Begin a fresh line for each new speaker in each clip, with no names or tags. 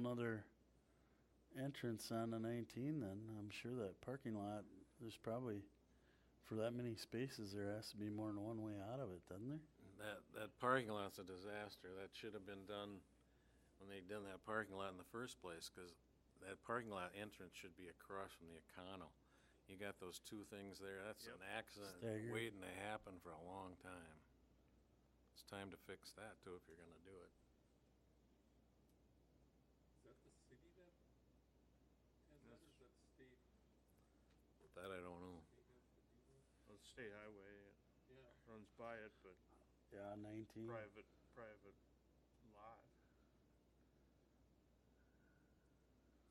nother entrance on the nineteen then, I'm sure that parking lot, there's probably, for that many spaces, there has to be more than one way out of it, doesn't there?
That, that parking lot's a disaster. That should have been done when they done that parking lot in the first place, because that parking lot entrance should be across from the Econo. You got those two things there, that's an accident
Staggered.
waiting to happen for a long time. It's time to fix that too, if you're gonna do it.
Is that the city that has that, or is that the state?
That I don't know.
They have to do that?
Well, the state highway it
Yeah.
runs by it, but
Yeah, nineteen.
private, private lot.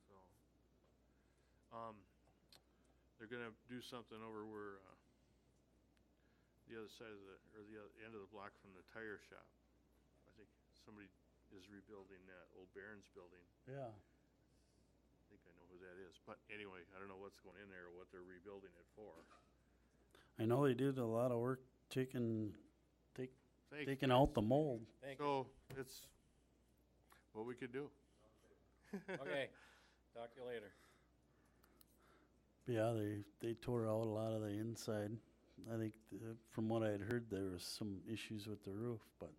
So, um, they're gonna do something over where, uh, the other side of the, or the other end of the block from the tire shop. I think somebody is rebuilding that old Barron's building.
Yeah,
I think I know who that is, but anyway, I don't know what's going in there or what they're rebuilding it for.
I know they did a lot of work taking, take,
Thank
taking out the mold.
So it's what we could do.
Okay, talk to you later.
Yeah, they, they tore out a lot of the inside. I think, the- from what I had heard, there was some issues with the roof, but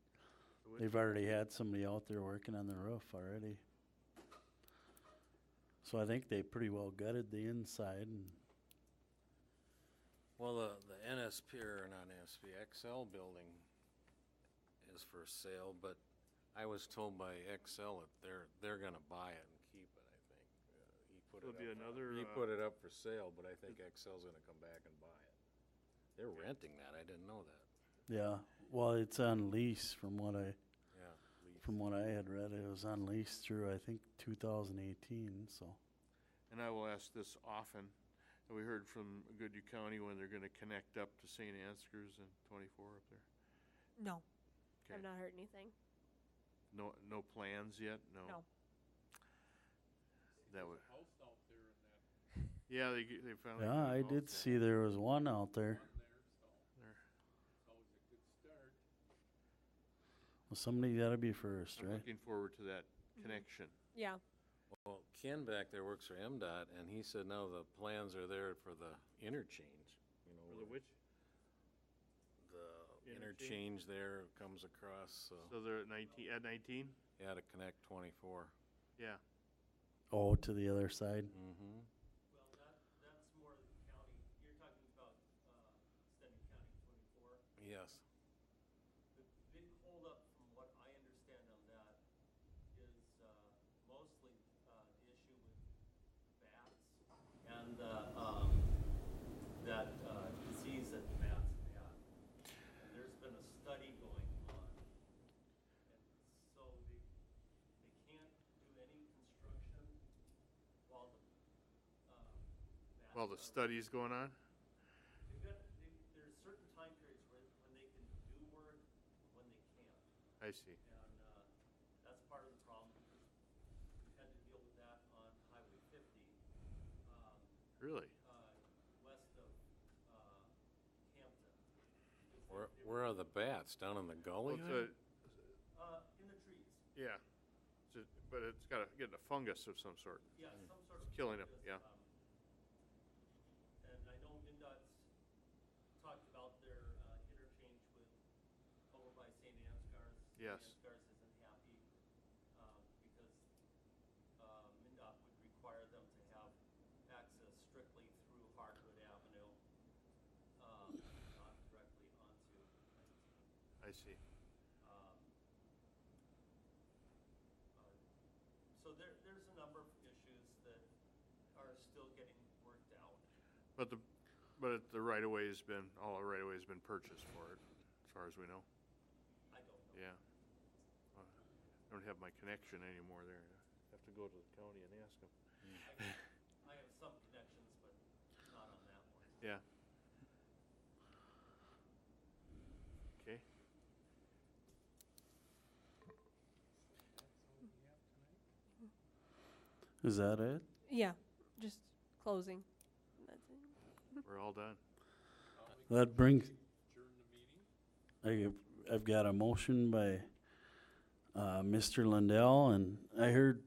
They've already had somebody out there working on the roof already. So I think they pretty well gutted the inside and,
Well, the, the NSP, or not NSP, XL building is for sale, but I was told by XL that they're, they're gonna buy it and keep it, I think. Uh, He put it
It'll
up.
be
on-
another,
He
uh,
put it up for sale, but I think XL's gonna come back and buy it. They're renting that, I didn't know that,
yeah, well, it's on lease from what I,
yeah. lease.
from what I had read. It was on lease through, I think, two thousand eighteen, so.
And I will ask this often. We heard from Goodhue County when they're gonna connect up to St. Ansgar's and twenty-four up there.
No.
Okay.
I've not heard anything.
No, no plans yet? No?
No.
See, there's
That would,
a House out there in that,
Oh, yeah, they, g- they finally.
Yeah,
got
I
involved
did
there.
see there was one out there.
one there, so
There.
it's always a good start.
Well, somebody gotta be first,
I'm
right?
looking forward to that
Mm-hmm.
connection.
Yeah.
Well, Ken back there works for MDOT, and he said, no, the plans are there for the interchange, you know. where The
Interchange?
interchange there comes across, so,
So they're at nineteen, at nineteen?
yeah, to connect twenty-four.
Yeah.
Oh, to the other side.
Mm-hmm.
Well, that, that's more than county, you're talking about, uh, extending county twenty-four.
Yes.
The big holdup, from what I understand on that, is, uh, mostly, uh, the issue with bats and, the, um, that, uh, disease that the bats have had. And there's been a study going on. And so they, they can't do any construction while the, uh, bats.
While the
are-
study's going on?
They've got, they, there's certain time periods where, when they can do work, and when they
I
can't.
see.
And, uh, that's part of the problem, because we had to deal with that on Highway fifty, um,
Really?
uh, west of, uh, Hampton.
Where, where are the bats? Down in the
Well,
gully?
it's
there?
a-
Uh, in the trees,
Yeah. It's a- But it's got to get a fungus of some sort.
yeah, some sort of.
It's killing 'em,
fungus,
yeah.
um, And I know MinDOT's talked about their, uh, interchange with, over by St. Ansgar's. St.
Yes.
Ansgar's isn't happy, um, because, uh, MinDOT would require them to have access strictly through Hardwood Avenue, um, not directly onto 19.
I see.
Um, uh, So there, there's a number of issues that are still getting worked out.
But the, but it- the right of way has been, all the right of way has been purchased for it, as far as we know.
I don't know.
Yeah. Uh, I don't have my connection anymore there. I Have to go to the county and ask them.
I- I have some connections, but not on that one.
Yeah. Okay.
That's all we have tonight?
Is that it?
Yeah. Just closing. That's it.
We're all done.
I'll make
That brings,
During the meeting?
I, I've got a motion by, uh, Mr. Lundell and I heard